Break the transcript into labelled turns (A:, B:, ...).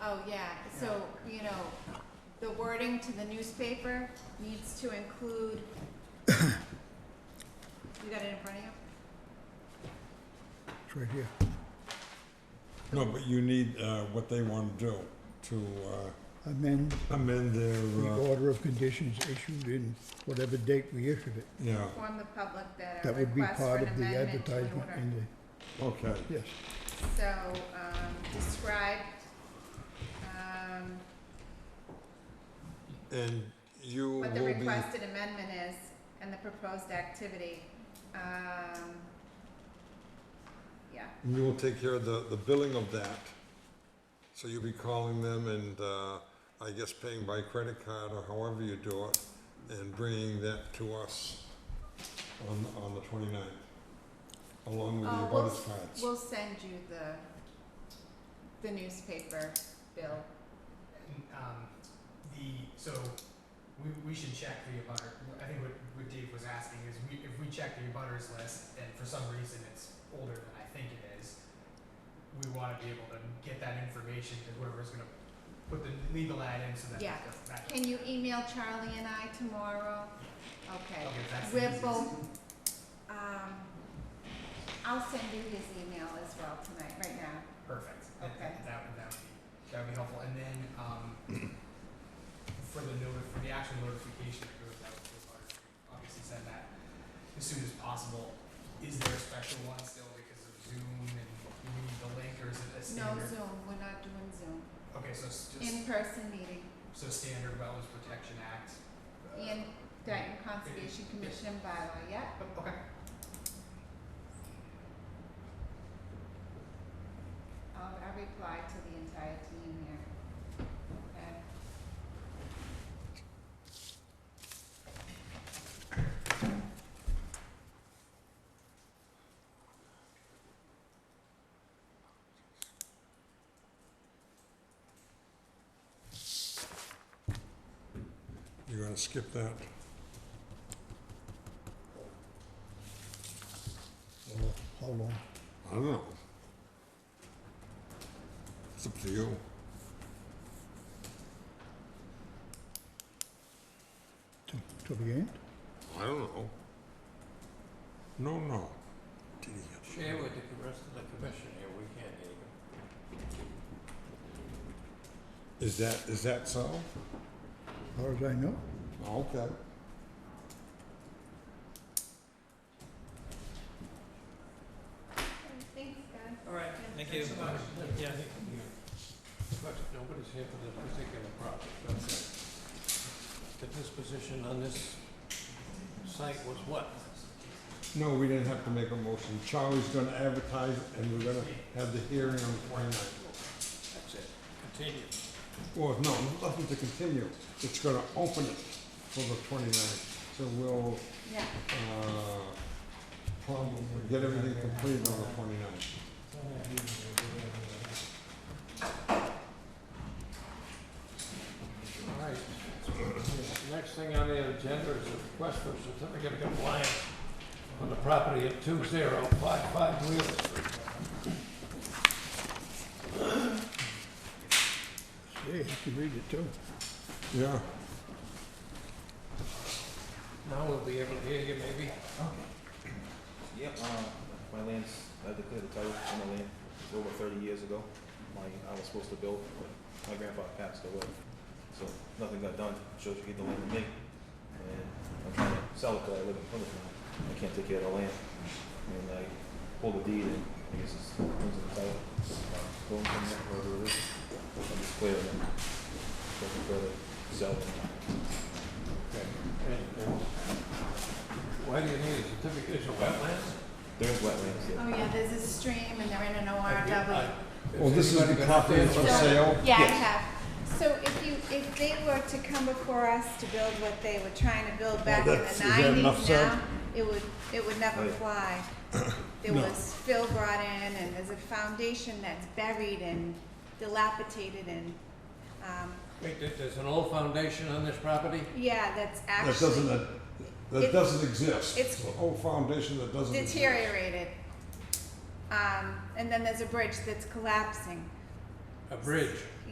A: Oh, yeah, so, you know, the wording to the newspaper needs to include, you got it in front of you?
B: It's right here.
C: No, but you need uh, what they want to do to
B: Amend
C: uh, amend
B: the
C: their, uh,
B: order of conditions issued in whatever date we issued it.
C: yeah,
A: Inform the public that a
B: That would be
A: request for
B: part
A: an
B: of the
A: amendment to the
B: advertisement
A: order.
B: in
C: okay.
B: the, yes.
A: So, um, describe, um,
C: And you
A: what the
C: will be,
A: requested amendment is and the proposed activity. Um, yeah,
C: you will take care of the, the billing of that. So you'll be calling them and, uh, I guess paying by credit card or however you do it, and bringing that to us on, on the twenty-ninth, along with the
A: Oh, we'll-
C: abutters cards.
A: we'll send you the, the newspaper bill.
D: And, um, the, so, we, we should check the abutter, I think what, what Dave was asking is, we, if we check the abutters list, and for some reason it's older than I think it is, we wanna be able to get that information to whoever's gonna put the legal ad in, so that.
A: Yeah.
D: that-
A: Can you email Charlie and I tomorrow? Okay.
D: Okay, that's the
A: We're
D: easiest.
A: both- Um, I'll send you his email as well tonight, right now.
D: Perfect. That-
A: Okay.
D: That would, that would be, that would be helpful, and then, um, for the notif, for the actual notification that goes out to the butters, we obviously send that as soon as possible. Is there a special one still because of Zoom and you need the link, or is it a
A: No
D: standard?
A: Zoom, we're not doing Zoom.
D: Okay, so it's just,
A: In-person meeting.
D: so standard Wetlands Protection Act. uh,
A: Ian Dayton Conservation Commission bylaw, yeah?
D: oh, Okay,
A: I'll, I'll reply to the entire team here. Okay.
C: You're gonna skip that?
B: Well, Uh, How long?
C: I don't know. It's up to you.
B: Till, till the end?
C: I don't know. No, no. Did he get
E: Share with the rest of the commission here, we can't hear you.
C: Is that, is that so?
B: As far as I know.
C: Okay.
A: Thanks, guys.
E: All right,
A: thank
D: you.
E: Yeah. But nobody's here for this particular project, okay. The disposition on this site was what?
C: No, we didn't have to make a motion. Charlie's gonna advertise and we're gonna have the hearing on the twenty-ninth.
E: That's it. Continue.
C: Well, no, nothing to continue. It's gonna open it for the twenty-ninth. So we'll,
A: Yeah,
C: uh, probably get everything completed on the twenty-ninth.
E: All right. Next thing on the agenda is a request for certificate of compliance on the property at two zero five five Wheeler Street.
B: Yeah, you can read it too.
C: Yeah.
E: Now we'll be able to hear you maybe.
F: Yep, uh, my land's, I declared the title on the land, it's over thirty years ago. My, I was supposed to build, but my grandfather passed away. So nothing got done, shows you get the land to me. And I'm trying to sell it, but I live in Plymouth now, I can't take care of the land. And I pulled the deed and I guess it's, things in the title, uh, going from there, wherever it is. I'm just clearing it, looking further, sell it.
E: Okay. uh, Why do you need a certificate of wetlands?
F: There is wetlands, yeah.
A: oh yeah, there's a stream and they're in an
E: I-
A: ORW.
E: if
C: Well, this is
E: anybody
C: the
E: got
C: property
E: this-
C: For
A: So-
C: sale?
A: Yeah, I
F: Yes.
A: have. So if you, if they were to come before us to build what they were trying to build back in
C: that's-
A: the
C: is that enough
A: nineties
C: said?
A: now, it would, it would never
F: Right.
A: fly. There
C: No.
A: was fill brought in and there's a foundation that's buried and dilapidated and, um,
E: Wait, there- there's an old foundation on this property?
A: yeah, that's
C: That doesn't,
A: actually
C: uh, that
A: It-
C: doesn't exist.
A: it's-
C: It's a whole foundation that doesn't exist.
A: deteriorated. Um, and then there's a bridge that's collapsing.
E: A bridge?